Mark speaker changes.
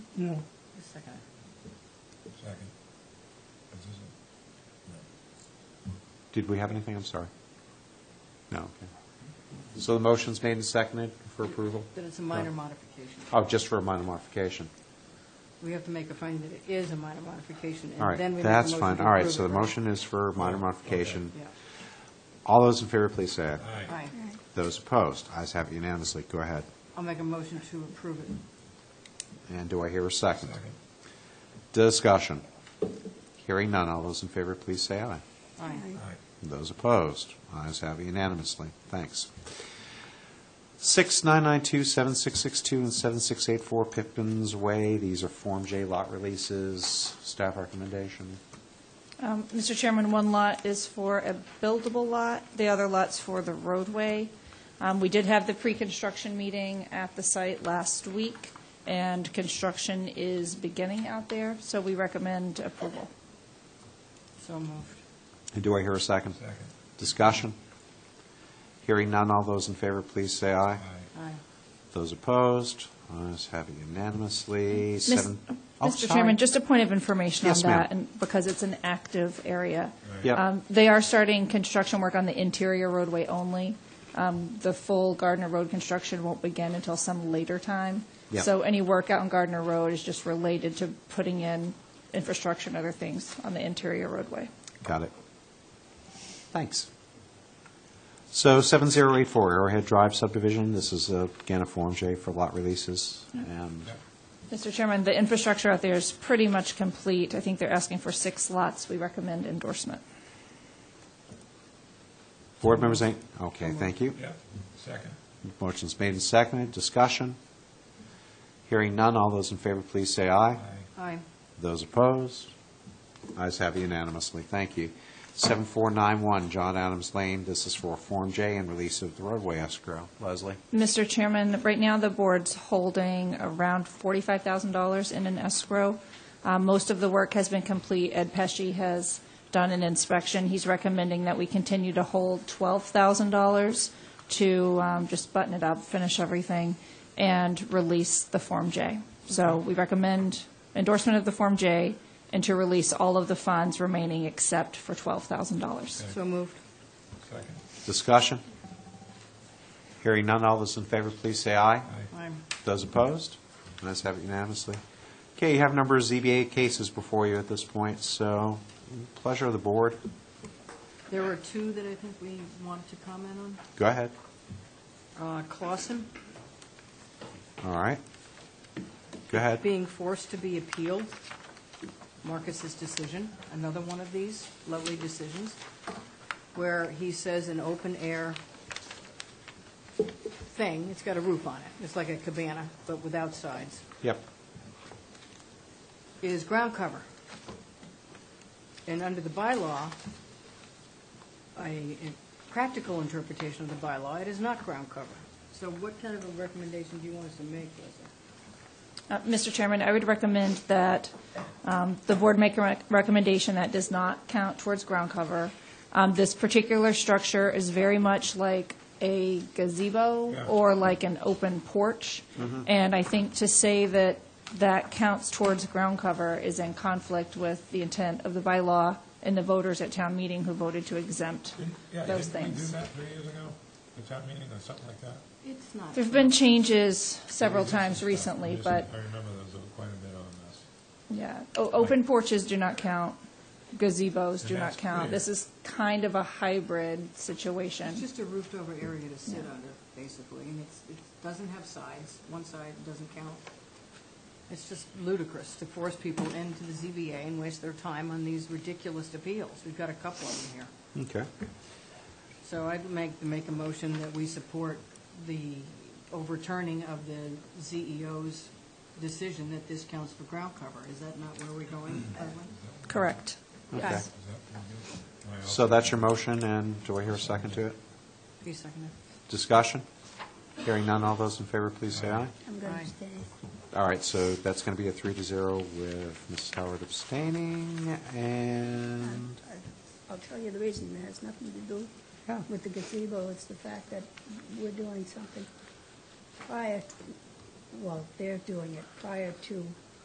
Speaker 1: Yeah.
Speaker 2: Who's second?
Speaker 3: Second. Is this a-
Speaker 4: Did we have anything? I'm sorry. No, okay. So the motion's made and seconded for approval?
Speaker 2: That it's a minor
Speaker 4: No.
Speaker 2: modification.
Speaker 4: Oh, just for a minor modification.
Speaker 2: We have to make a finding that it is a minor modification,
Speaker 4: All
Speaker 2: and then
Speaker 4: right,
Speaker 2: we make a motion
Speaker 4: that's
Speaker 2: to
Speaker 4: fine. All right,
Speaker 2: approve
Speaker 4: so
Speaker 2: it.
Speaker 4: the motion is for minor modification.
Speaker 2: Yeah.
Speaker 4: All those in favor, please say aye.
Speaker 3: no.
Speaker 2: Aye.
Speaker 4: Those opposed, ayes have it unanimously. Go ahead.
Speaker 2: I'll make a motion to approve it.
Speaker 4: And do I hear a second?
Speaker 3: Second.
Speaker 4: Discussion. Hearing none, all those in favor, please say aye.
Speaker 2: Aye.
Speaker 3: Aye.
Speaker 4: Those opposed, ayes have it unanimously. Thanks. 6992, 7662, and 7684 Pippin's Way, these are Form J lot releases. Staff recommendation.
Speaker 5: Um, Mr. Chairman, one lot is for a buildable lot, the other lot's for the roadway. Um, We did have the pre-construction meeting at the site last week, and construction is beginning out there, so we recommend approval.
Speaker 2: So moved.
Speaker 4: And Do I hear a second?
Speaker 3: Second.
Speaker 4: Discussion? Hearing none, all those in favor, please say aye.
Speaker 3: Aye.
Speaker 2: Aye.
Speaker 4: Those opposed, ayes have it unanimously.
Speaker 5: Miss-
Speaker 4: Seven- Oh,
Speaker 5: Mr.
Speaker 4: sorry.
Speaker 5: Chairman, just a point of information on
Speaker 4: Yes, ma'am.
Speaker 5: that, and because it's an active area.
Speaker 3: Right.
Speaker 4: Yep.
Speaker 5: Um, They are starting construction work on the interior roadway only. Um, The full Gardner Road construction won't begin until some later time.
Speaker 4: Yep.
Speaker 5: So any work out on Gardner Road is just related to putting in infrastructure and other things on the interior roadway.
Speaker 4: Got it. Thanks. So 7084 Arrowhead Drive subdivision, this is uh, again a Form J for lot releases, and
Speaker 3: Yep.
Speaker 5: Mr. Chairman, the infrastructure out there is pretty much complete. I think they're asking for six lots. We recommend endorsement.
Speaker 4: board members, ain't- okay, thank you.
Speaker 3: Yep. Second.
Speaker 4: Motion's made and seconded, discussion. Hearing none, all those in favor, please say aye.
Speaker 3: Aye.
Speaker 2: Aye.
Speaker 4: Those opposed? Ayes have unanimously, thank you. 7491 John Adams Lane, this is for a Form J and release of the roadway escrow. Leslie?
Speaker 5: Mr. Chairman, right now, the board's holding around $45,000 in an escrow. Uh, Most of the work has been complete. Ed Pesci has done an inspection. He's recommending that we continue to hold $12,000 to um, just button it up, finish everything, and release the Form J. So we recommend endorsement of the Form J and to release all of the funds remaining except for $12,000.
Speaker 2: So moved.
Speaker 3: Second.
Speaker 4: Discussion? Hearing none, all those in favor, please say aye.
Speaker 2: Aye.
Speaker 4: Those opposed? Let's have it unanimously. Okay, you have a number of ZBA cases before you at this point, so pleasure of the board.
Speaker 2: There were two that I think we wanted to comment on.
Speaker 4: Go ahead.
Speaker 2: Uh, Clausen
Speaker 4: All right. Go ahead.
Speaker 2: being forced to be appealed, Marcus's decision, another one of these lovely decisions, where he says an open-air thing, it's got a roof on it, it's like a cabana, but without sides,
Speaker 4: Yep.
Speaker 2: is ground cover. And under the bylaw, a a practical interpretation of the bylaw, it is not ground cover. So what kind of a recommendation do you want us to make, Leslie?
Speaker 5: Uh, Mr. Chairman, I would recommend that um, the board make a rec- recommendation that does not count towards ground cover. Um, This particular structure is very much like a
Speaker 3: Yeah. Mm-hmm.
Speaker 5: gazebo or like an open porch. And I think to say that that counts towards ground cover is in conflict with the intent of the bylaw and the voters at town meeting who voted to exempt
Speaker 3: Didn't- Yeah,
Speaker 5: those
Speaker 3: didn't we do
Speaker 5: things.
Speaker 3: that three years ago? The town meeting or something like that?
Speaker 2: It's not.
Speaker 5: There've been changes several
Speaker 3: We did some
Speaker 5: times
Speaker 3: stuff.
Speaker 5: recently,
Speaker 3: There's some-
Speaker 5: but.
Speaker 3: I remember there was a- quite a bit on this.
Speaker 5: Yeah, O- open porches do not count, gazebos do
Speaker 3: And
Speaker 5: not
Speaker 3: that's
Speaker 5: count.
Speaker 3: clear.
Speaker 5: This is kind of a hybrid
Speaker 2: It's
Speaker 5: situation.
Speaker 2: just a roofed over area to sit under, basically, and it's, it doesn't have sides, one side doesn't count. It's just ludicrous to force people into the ZBA and waste their time on these ridiculous appeals. We've got a couple of them here.
Speaker 4: Okay.
Speaker 2: So I'd make, make a motion that we support the overturning of the CEO's decision that this counts for ground cover. Is that not where we're going, Evelyn?
Speaker 5: Correct.
Speaker 4: Okay.
Speaker 3: Is
Speaker 5: Yes.
Speaker 3: that what we do? Am I
Speaker 4: So
Speaker 3: off?
Speaker 4: that's your motion, and do I hear a second to it?
Speaker 2: Please second
Speaker 4: Discussion? Hearing none, all those in favor, please say aye.
Speaker 6: I'm going
Speaker 2: Aye.
Speaker 6: to stay.
Speaker 4: All right, so that's going to be a three to zero with Mrs. Howard abstaining, and,
Speaker 6: I'll- I'll tell you the reason, it has nothing to do
Speaker 4: yeah.
Speaker 6: with the gazebo, it's the fact that we're doing something prior, well, they're doing it prior to